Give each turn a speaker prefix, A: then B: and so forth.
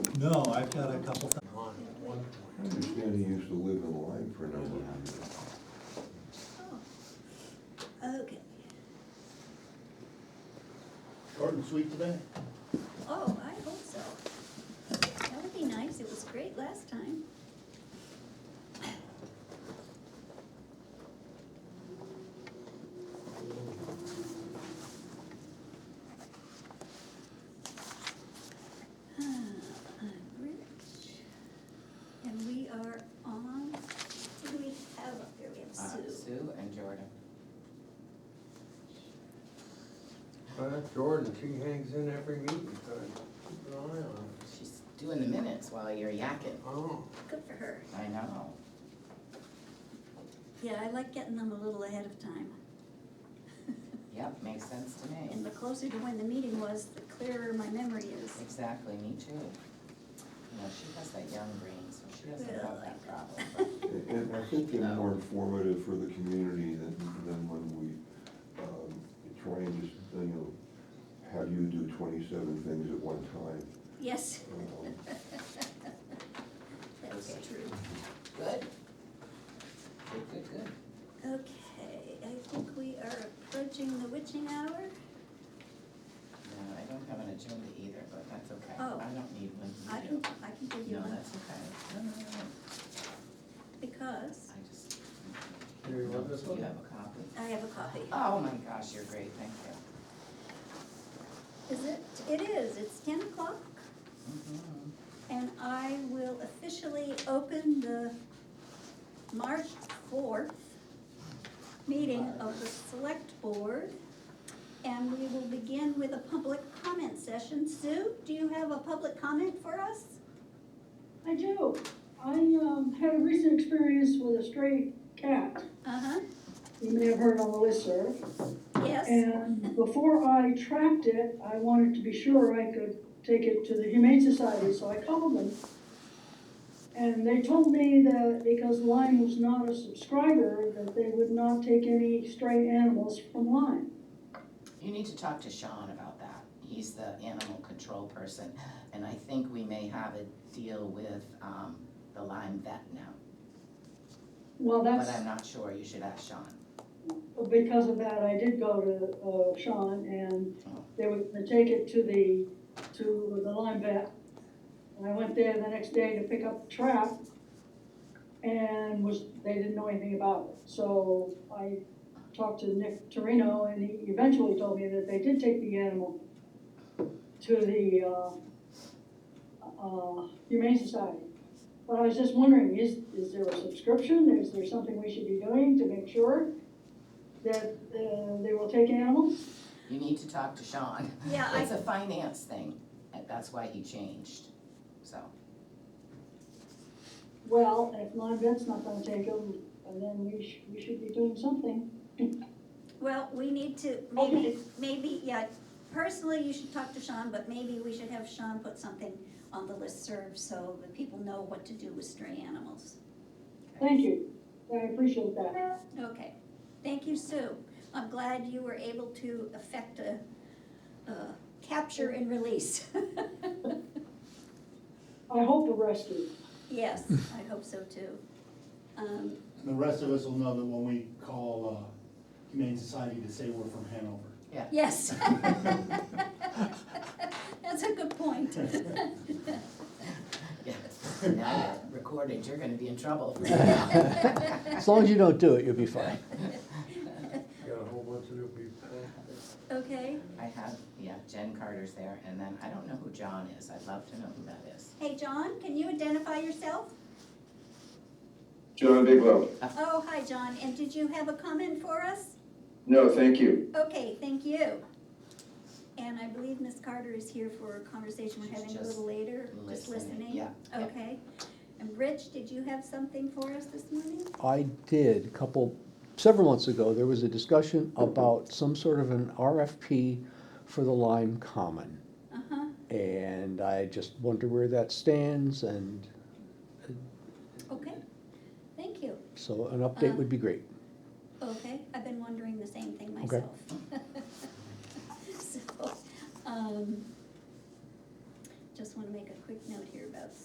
A: No, I've got a couple things.
B: I understand he used to live in Lyme for a number of years.
C: Oh. Okay,
D: Short and sweet today?
C: oh, I hope so. That would be nice, it was great last time. Ah, I'm Rich, and we are on, who do we have up here? We have
E: Uh,
C: Sue.
E: Sue and Jordan.
F: But Jordan, she hangs in every meeting, so keep an eye on her.
E: She's doing the minutes while you're yakking.
F: Oh,
C: Good for her.
E: I know.
C: Yeah, I like getting them a little ahead of time.
E: Yep, makes sense to
C: And
E: me.
C: the closer to when the meeting was, the clearer my memory is.
E: Exactly, me too. You know, she has that young brain, so she doesn't
C: Well,
E: have
C: I-
E: that problem. but
B: And- And I think they're more informative for the community than, than when we, um, try and just, you know, have you do twenty-seven things at one time.
C: Yes,
B: Um,
C: that's true.
E: Good. Good, good, good.
C: Okay, I think we are approaching the witching hour.
E: No, I don't have an agenda either, but that's okay.
C: Oh.
E: I don't need one. You
C: I
E: do.
C: can, I can give you
E: No,
C: one
E: that's okay. No, no, no, no.
C: because
E: I just.
F: Here, you want this
E: Do
F: one?
E: you have a copy?
C: I have a copy.
E: Oh my gosh, you're great, thank you.
C: Is it? It is, it's ten o'clock
E: Mhm.
C: and I will officially open the March fourth meeting of the select board. And we will begin with a public comment session. Sue, do you have a public comment for us?
G: I do. I um, had a recent experience with a stray cat.
C: Uh-huh,
G: You may have heard on the listserv.
C: yes,
G: And before I tracked it, I wanted to be sure I could take it to the Humane Society, so I called them. And they told me that because Lyme was not a subscriber, that they would not take any stray animals from Lyme.
E: You need to talk to Sean about that. He's the animal control person, and I think we may have a deal with, um, the Lyme vet now.
G: Well,
E: But
G: that's,
E: I'm not sure, you should ask Sean.
G: because of that, I did go to uh, Sean and they were gonna take it to the, to the Lyme vet. And I went there the next day to pick up the trap and was, they didn't know anything about it. So I talked to Nick Torino and he eventually told me that they did take the animal to the, uh, uh, Humane Society. But I was just wondering, is, is there a subscription? Is there something we should be doing to make sure that, uh, they will take animals?
E: You need to talk to Sean.
C: Yeah, I-
E: It's a finance thing, and that's why he changed, so.
G: Well, if Lyme vet's not gonna take them, then we should, we should be doing something.
C: well, we need to, maybe, maybe, yeah, personally, you should talk to Sean, but maybe we should have Sean put something on the listserv so that people know what to do with stray animals.
G: Thank you, I appreciate that.
C: Okay, thank you, Sue. I'm glad you were able to effect a, a capture and release.
G: I hope a rescue.
C: Yes, I hope so too. Um,
D: And the rest of us will know that when we call uh, Humane Society to say we're from Hanover.
C: Yes. That's a good point.
E: Yeah. Now you're recorded, you're gonna be in trouble. for that.
H: As long as you don't do it, you'll be fine.
F: got a whole bunch of new people.
C: Okay,
E: I have, yeah, Jen Carter's there, and then I don't know who John is, I'd love to know who that is.
C: hey, John, can you identify yourself?
I: John Bigelow.
C: Oh, hi, John, and did you have a comment for us?
I: No, thank you.
C: Okay, thank you. And I believe Miss Carter is here for a conversation we're having a little later, just
E: Listening,
C: listening.
E: yeah, yeah.
C: Okay, and Rich, did you have something for us this morning?
H: I did, a couple, several months ago, there was a discussion about some sort of an RFP for the Lime Common.
C: Uh-huh,
H: And I just wonder where that stands, and
C: okay, thank you.
H: so an update would be great.
C: Okay, I've been wondering the same thing
H: Okay.
C: myself. So, um, just wanna make a quick note here about